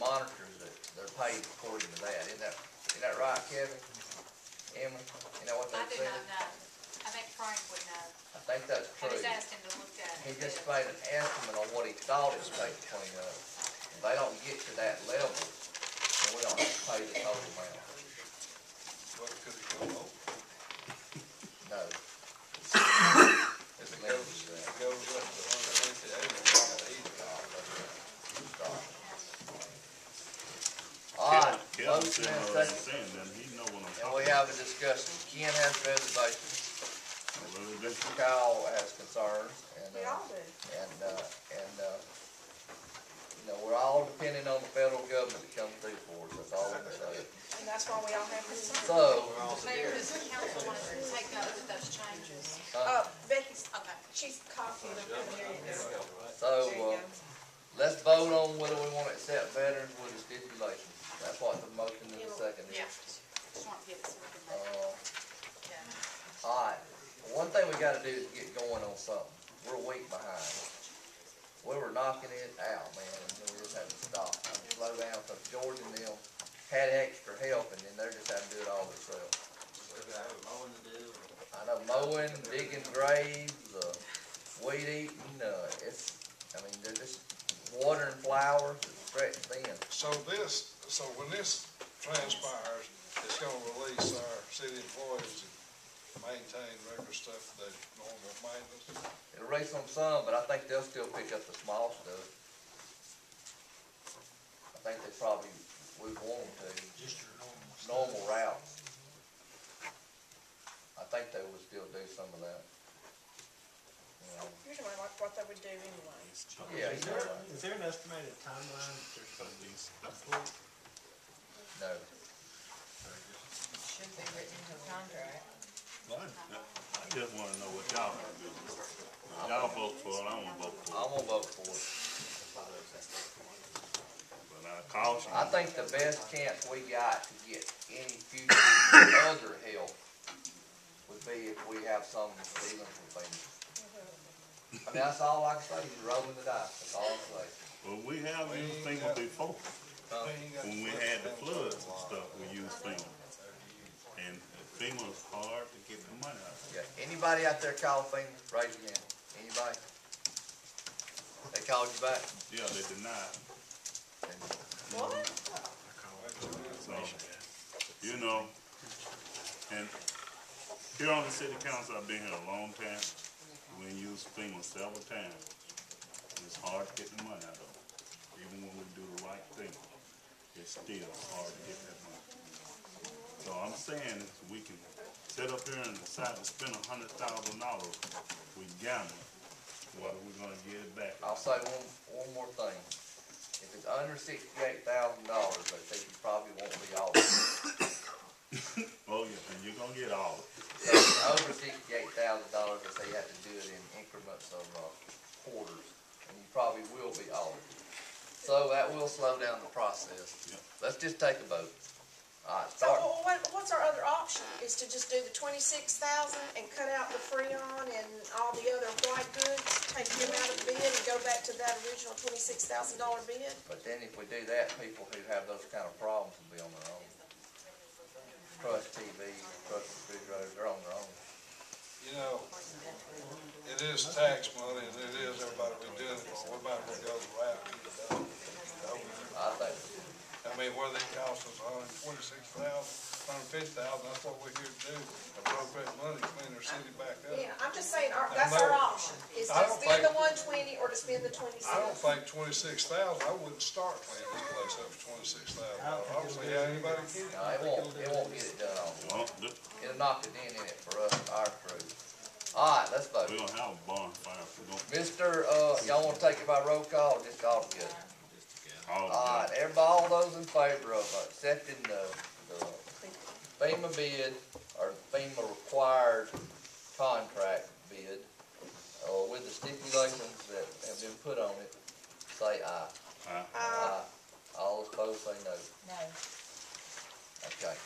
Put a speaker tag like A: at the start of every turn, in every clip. A: monitors that they're paid according to that, isn't that, isn't that right, Kevin? Emma, you know what
B: I
A: that
B: do
A: said?
B: not know. I think Frank would know.
A: I think that's
B: I
A: true.
B: just asked him to look at
A: He
B: it.
A: just made an estimate on what he thought it would take to clean up. If they don't get to that level, then we don't have to pay the total amount,
C: Well, could it go over?
A: no. It's
C: If
A: limited
C: it goes,
A: to
C: if
A: that.
C: it goes up to hundred and fifty, they don't got eighty
A: All right, motion and
D: Kevin said Oh, what I was
A: second,
D: saying, then he know what I'm
A: and we
D: talking about.
A: have a discussion. Ken has reservations,
D: Well, it just-
A: Kyle has concerns, and,
E: We
A: uh,
E: all do.
A: and, uh, and, uh, you know, we're all depending on the federal government to come through for us, that's all I'm saying.
E: And that's why we all have this.
A: So,
B: Mayor, does the council want to take note of those changes?
E: Uh, Becky's,
B: Okay.
E: she's coughing
C: Oh,
E: up in there.
A: so,
E: There you
A: uh,
E: go.
A: let's vote on whether we wanna accept veterans with the stipulations. That's what the motion in the second is.
B: Yeah. Just want to give it some information.
A: Uh,
B: Yeah.
A: Alright, one thing we gotta do is get going on something, we're a week behind. We were knocking it out, man, and we just had to stop, I mean, slow down, so George and them had extra help, and then they're just having to do it all themselves. I know mowing, digging graves, uh, weed eating, uh, it's, I mean, they're just watering flowers, it's stretched thin.
C: So this, so when this transpires, it's gonna release our city employees and maintain regular stuff, that normal maintenance.
A: It'll raise on some, but I think they'll still pick up the small stuff. I think they probably would want them to. Just your normal. Normal route. I think they would still do some of that. You know,
E: Usually like what they would do anyway.
A: Yeah,
F: Is there,
A: you know, like-
F: is there an estimated timeline that they're supposed to be approved?
A: No,
G: Should be written into the contract.
D: Well, I I just wanna know what y'all gonna do. If Y'all vote for it, I won't vote for it,
A: I'm gonna vote for it.
D: but I caution
A: I
D: you,
A: think the best chance we got to get any future other help would be if we have some dealings with things. I mean, that's all I can say, is rolling the dice, that's all I can say.
D: well, we have used thinking before, when we had the floods and stuff, we used thinking. And FEMA's hard to get the money out of.
A: Yeah, anybody out there call FEMA, raise your hand, anybody? They called you back?
D: Yeah, they denied,
E: What?
D: so, you know, and here on the city council, I've been here a long time. We used FEMA several times, and it's hard to get the money out of it. Even when we do the right thing, it's still hard to get that money. So I'm saying is we can sit up here and decide to spend a hundred thousand dollars, we gamble, whether we're gonna get it back.
A: I'll say one, one more thing. If it's under sixty-eight thousand dollars, I think you probably won't be all, if
D: Oh, yeah, and you're gonna get all of it.
A: it's over sixty-eight thousand dollars, I say you have to do it in increments of, uh, quarters, and you probably will be audited. So that will slow down the process.
D: Yep.
A: Let's just take a vote. All right,
E: So
A: start.
E: well, what, what's our other option? Is to just do the twenty-six thousand and cut out the Freon and all the other white goods, take them out of the bid and go back to that original twenty-six thousand dollar bid?
A: But then if we do that, people who have those kind of problems will be on their own. Trust TV, trust refrigerators, they're on their own.
C: You know, it is tax money, and it is everybody we do it for, we might as well go the route. and get it done.
A: I think,
C: I mean, whether it costs us a hundred and twenty-six thousand, a hundred and fifty thousand, that's what we're here to do, appropriate money, clean our city back up.
E: Yeah, I'm just saying, our, that's our option, is
C: I
E: to
C: don't
E: spend the one
C: think-
E: twenty or to spend the
C: I don't
E: twenty-six.
C: think twenty-six thousand, I wouldn't start cleaning this place up for twenty-six thousand dollars, I don't see how anybody can.
A: no, it won't, it won't get it done.
D: Well, th-
A: It'll knock a dent in it for us, our crew. All right, let's vote.
D: we gonna have a bonfire, if we gonna
A: Mister, uh, y'all wanna take it by roll call, or just all together?
D: call it.
A: All right, everybody, all those in favor of accepting the, the FEMA bid, or FEMA required contract bid, uh, with the stipulations that have been put on it, say aye.
D: Aye.
E: Uh,
A: Aye. All opposed, say no.
G: No.
A: Okay.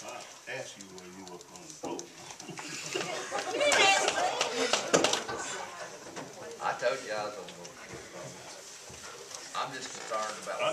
D: I asked you where you were gonna vote.
A: I told you I was gonna. I'm just concerned concerned about.